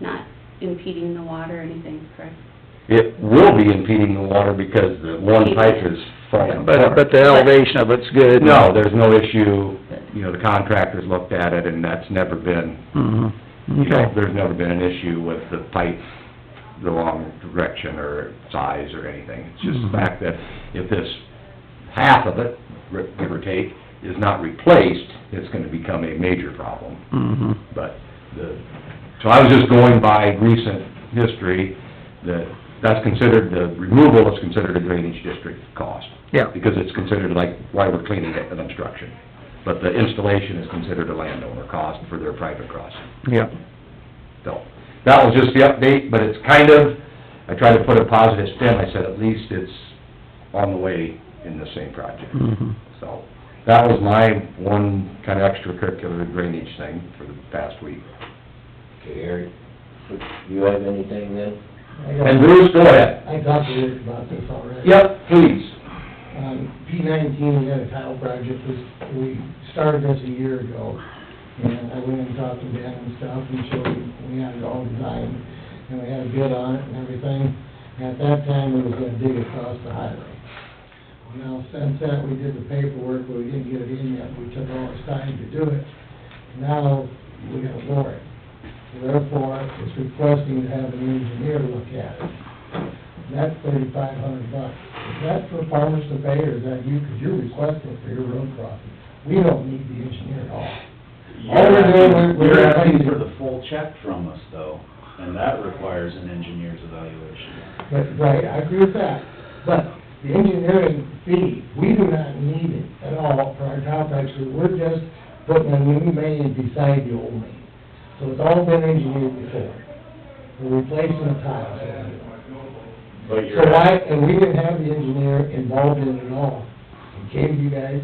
not impeding the water or anything, correct? It will be impeding the water because the one pipe is falling But, but apart. the elevation of it's good. No, there's no issue, you know, the contractors looked at it and that's never been, Mhm. you know, okay. there's never been an issue with the pipe, the wrong direction or size or anything. It's just the Mhm. fact that if this, half of it, r- give or take, is not replaced, it's gonna become a major problem. Mhm. But the, so I was just going by recent history, that, that's considered, the removal is considered a drainage district cost. Yeah. Because it's considered like, why we're cleaning it, an obstruction. But the installation is considered a landowner cost for their private crossing. Yeah. So, that was just the update, but it's kind of, I tried to put a positive spin, I said, at least it's on the way in the same project. Mhm. So, that was my one kind of extracurricular drainage thing for the past week. Okay, Eric, you have anything then? I And got, Bruce, go ahead. I talked to Rick about this already. Yep, please. Um, P nineteen, we had a tile project, this, we started this a year ago. And I went and talked to Dan and stuff and showed him, we had it all designed, and we had a bid on it and everything. And at that time, we was gonna dig across the highway. Now, since that, we did the paperwork, but we didn't get it in yet, we took all this time to do it. Now, we gotta bore it. Therefore, it's requesting to have an engineer look at it. And That's thirty-five hundred bucks. Is that for farmers to pay, or is that you, because you're requesting for your road crossing? We don't need the engineer at all. All we're doing, we're- we're- You're asking for the full check from us, though, and that requires an engineer's evaluation. But, right, I agree with that. But the engineering fee, we do not need it at all for our tile patch, because we're just putting a new main beside the old main. So it's all been engineered before. We're replacing the tiles. But So you're, why, and we didn't have the engineer involved in it at all. It came to you guys,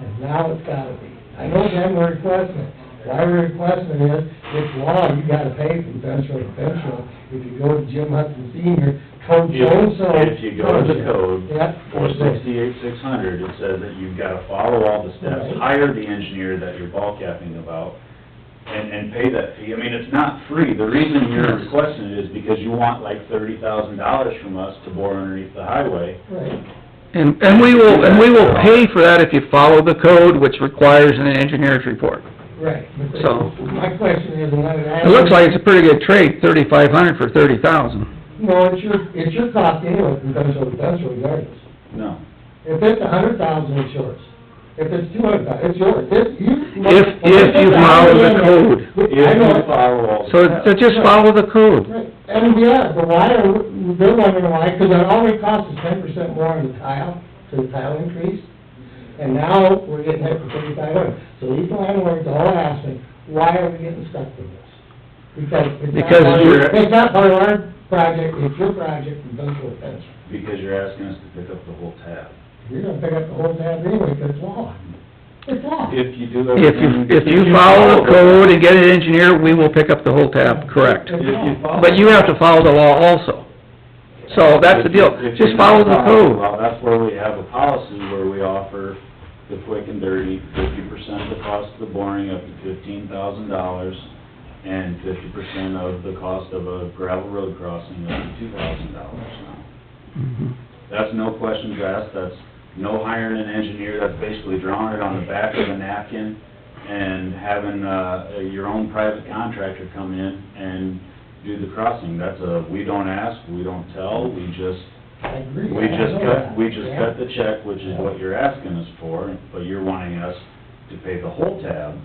and now it's gotta be. I know them were requesting it. Why we're requesting it is, it's law, you gotta pay from fence road to fence road. If you go to Jim Hudson Senior, code If- so-and-so. if you go to the code, Yep. four sixty-eight, six hundred, it says that you've gotta follow all the steps, Right. hire the engineer that you're ball capping about, and, and pay that fee. I mean, it's not free. The reason you're requesting it is because you want like thirty thousand dollars from us to bore underneath the highway. Right. And, and we will, and we will pay for that if you follow the code, which requires an engineer's report. Right. But So- My question is, and what it It looks like it's a pretty good trade, thirty-five hundred for thirty thousand. No, it's your, it's your cost anyway from fence road to fence road regardless. No. If it's a hundred thousand, it's yours. If it's two hundred thousand, it's yours. If you. If, if you follow the code. I If you know, follow all the So, steps. so just follow the code. right, and yeah, but why are, we- they're wondering why, because it already costs us ten percent more on the tile, to the tile increase. And now we're getting hit for thirty-five hundred. So these landlords are all asking, why are we getting stuck with this? Because it's not Because part of, you're- it's not part of our project, it's your project, and don't go fence. Because you're asking us to pick up the whole tab. You're gonna pick up the whole tab anyway, because it's law. It's law. If you do If everything... you, if you follow the code and get an engineer, we will pick up the whole tab, correct? If you follow... But you have to follow the law also. So that's the deal, If you- just follow the code. Well, that's where we have a policy where we offer the quick and dirty, fifty percent of the cost of the boring up to fifteen thousand dollars, and fifty percent of the cost of a gravel road crossing up to two thousand dollars now. Mhm. That's no questions asked, that's no hiring an engineer, that's basically drawing it on the back of a napkin and having, uh, your own private contractor come in and do the crossing. That's a, we don't ask, we don't tell, we just, I agree. we I know just that. cut, we just Yeah. cut the check, which is what you're asking us for, but you're wanting us to pay the whole tab.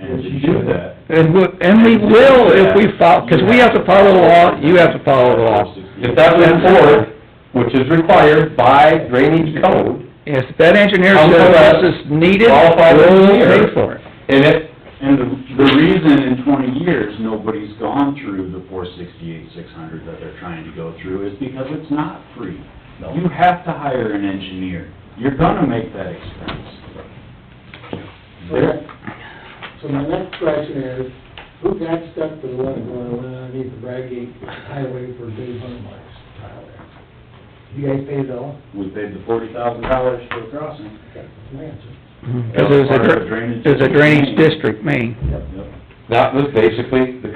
And to do that, And we, and we will if we follow, because we have to follow the law, you have to follow the law. If that was enforced, which is required by drainage code, If that engineer I'll says go back. this is needed, Qualified we'll engineer. pay for it. and it, And the, the reason in twenty years, nobody's gone through the four sixty-eight, six hundred that they're trying to go through is because it's not free. You have to hire an engineer. You're gonna make that expense. Okay. So my next question is, who got stuck with the one going underneath the Bradgate Highway for Dave Hunmark's tile there? You guys paid it all? We paid the forty thousand dollars for the crossing. Okay, that's my answer. Because it was a, Part of dr- the drainage it was a drainage district district. main. Yep. that was basically the